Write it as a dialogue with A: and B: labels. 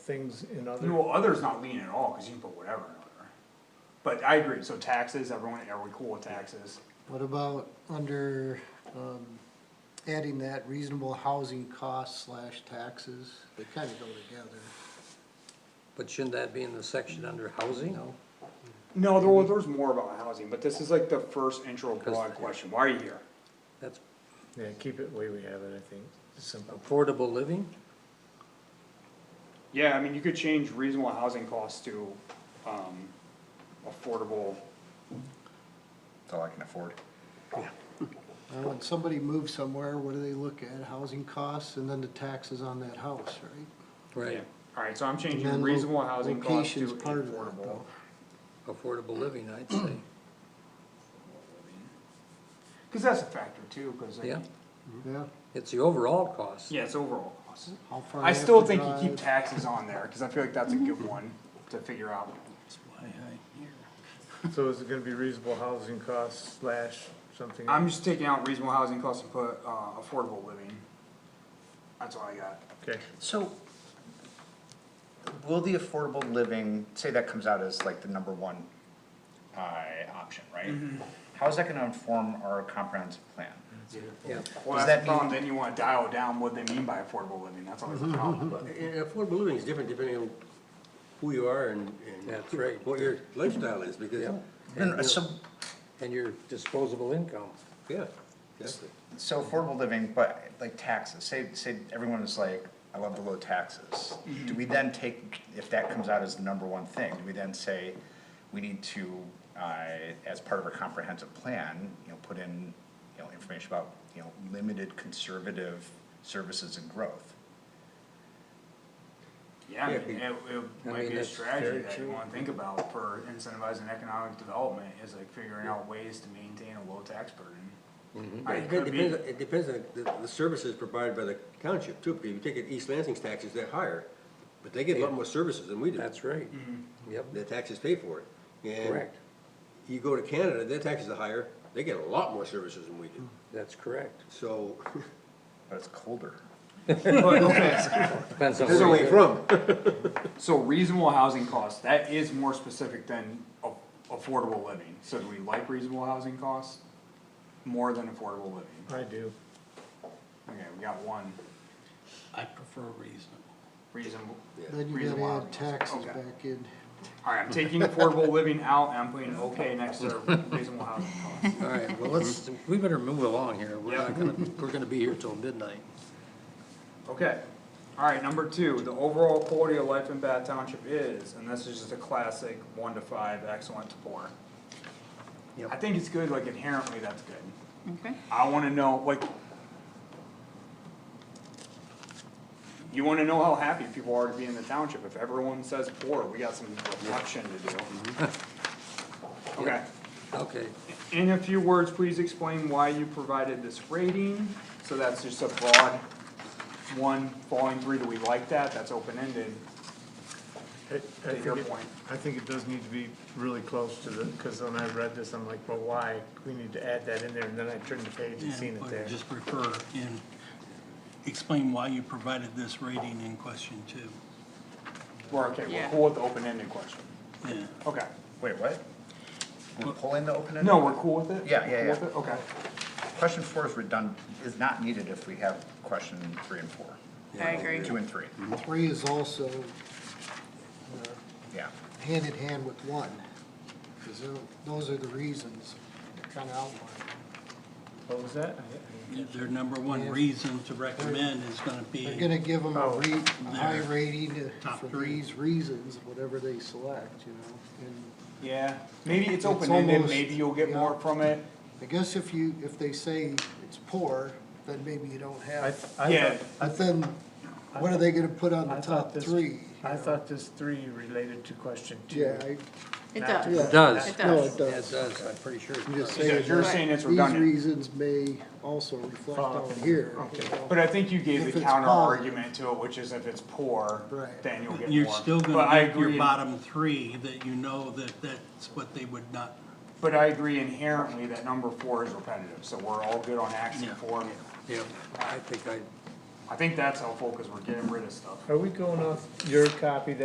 A: things in other,
B: No, other's not lean at all, cause you can put whatever in other. But I agree, so taxes, everyone, are we cool with taxes?
C: What about under, um, adding that reasonable housing costs slash taxes? They kinda go together.
D: But shouldn't that be in the section under housing? Oh,
B: No, there was, there was more about housing, but this is like the first intro broad
D: Because-
B: question, why are you here?
D: That's
A: yeah, keep it the way we have it, I think, simple.
D: affordable living?
B: Yeah, I mean, you could change reasonable housing costs to, um, affordable,
E: That's all I can afford.
C: Now, Uh, when somebody moves somewhere, what do they look at? Housing costs and then the taxes on that house, right?
D: Right,
B: alright, so I'm
C: And
B: changing
C: then
B: reasonable housing costs to
C: location's part of that,
B: affordable.
C: though.
D: affordable living, I'd say,
B: Cause that's a factor too, cause I
D: yeah.
B: mean,
C: Yeah,
D: It's the overall cost.
B: yeah, it's overall costs.
C: how far.
B: I
C: they have
B: still
C: to
B: think you keep
C: drive.
B: taxes on there, cause I feel like that's a good one to figure out.
A: So is it gonna be reasonable housing costs slash something?
B: I'm just taking out reasonable housing costs and put, uh, affordable living. That's all I got.
A: Okay,
E: So will the affordable living, say that comes out as like the number one uh, option, right? How's that gonna inform our comprehensive plan?
D: Yeah,
B: Well, that's the
E: Does that mean-
B: problem, then you wanna dial down what they mean by affordable living, that's always the problem.
F: And and affordable living is different depending on who you are and, and.
D: That's right.
F: What your lifestyle is, because,
D: Yeah.
E: And so,
D: and your disposable income.
F: yeah, exactly.
E: so affordable living, but like taxes, say, say everyone is like, I love the low taxes. Do we then take, if that comes out as the number one thing, do we then say, we need to, uh, as part of our comprehensive plan, you know, put in, you know, information about, you know, limited conservative services and growth?
B: Yeah, I mean, it, it
D: I
B: might
D: mean,
B: be a
D: that's
B: strategy
D: very
B: that you
D: true.
B: wanna think about for incentivizing economic development, is like figuring out ways to maintain a low tax burden.
D: Mm-hmm.
B: I-
F: It
B: It
F: depends,
B: could be,
F: it depends on the, the services provided by the township too, because if you take it, East Lansing's taxes, they're higher, but they get a lot more services than we do.
D: That's right. Yep,
F: Their taxes pay for it. And
D: correct.
F: You go to Canada, their taxes are higher, they get a lot more services than we
D: Hmm.
F: do,
D: That's correct.
F: so,
E: But it's colder.
D: Depends on
F: there's
D: where
F: only
D: you
F: from.
B: so reasonable housing costs, that is more specific than a- affordable living, so do we like reasonable housing costs? More than affordable living,
A: I do.
B: okay, we got one
G: I prefer reasonable.
B: reasonable,
C: Then you
B: reasonable
C: gotta
B: housing
C: add
B: costs.
C: taxes
B: Okay.
C: back in.
B: Alright, I'm taking affordable living out and I'm putting okay next to reasonable housing costs.
D: All right, well, let's, we better move along here. We're not gonna, we're gonna be here till midnight.
B: Okay, alright, number two, the overall quality of life in Bath Township is, and this is just a classic one to five, excellent to poor.
D: Yep.
B: I think it's good, like inherently, that's good.
H: Okay.
B: I wanna know, like. You wanna know how happy people are to be in the township, if everyone says poor, we got some reflection to do. Okay.
D: Okay,
B: In a few words, please explain why you provided this rating, so that's just a broad one, following three, do we like that, that's open-ended.
A: I- I
B: To
A: think
B: your
A: it-
B: point.
A: I think it does need to be really close to the, cause when I read this, I'm like, well, why? We need to add that in there, and then I turned the page and seen
G: Yeah,
A: it
G: but
A: there.
G: Just refer and explain why you provided this rating in question two.
B: We're okay, we're
H: Yeah.
B: cool with the open-ended question,
G: Yeah,
B: okay.
E: Wait, what? We're pulling the open-ended?
B: No, we're cool with it?
E: Yeah, yeah,
B: Cool
E: yeah.
B: with it? Okay,
E: Question four is redundant, is not needed if we have question three and four.
H: I agree.
E: Two and three,
C: Three is also
E: yeah.
C: hand in hand with one, because those are the reasons kinda outlined.
A: What was that?
G: their number one reason to recommend is gonna
C: They're
G: be,
C: gonna give them a
A: Oh.
C: rate, a high rating to-
G: Top
C: for
G: three.
C: these reasons, whatever they select, you know? And
B: yeah, maybe it's
C: It's
B: open-ended,
C: almost-
B: maybe you'll get
C: yeah.
B: more from it,
C: I guess if you, if they say it's poor, then maybe you don't
A: I,
C: have,
A: I.
B: Yeah.
A: thought-
C: but then what are they gonna put on
A: I
C: the
A: thought
C: top
A: this-
C: three?
A: I thought this three related to question two.
C: Yeah, I,
H: It
A: Not-
H: does.
C: It
D: does.
H: It
C: no, it
H: does.
D: that
C: does.
D: does, I'm pretty sure. it
C: You just
D: does.
C: say
B: Because you're
C: that
B: saying it's
C: these
B: redundant,
C: reasons may also reflect
A: Follow.
C: on here.
A: Okay.
C: you know?
B: but I think you gave
C: If
B: the
C: it's
B: counter
C: poor-
B: argument to it, which is if it's poor,
C: Right.
B: then you'll get more.
G: you're still
B: But I
G: gonna get your
B: agree.
G: bottom three that you know that that's what they would not,
B: But I agree inherently that number four is repetitive, so we're all good on action
G: Yeah.
B: four.
D: Yeah, I think I
B: I think that's helpful, cause we're getting rid of stuff.
A: Are we going off your copy that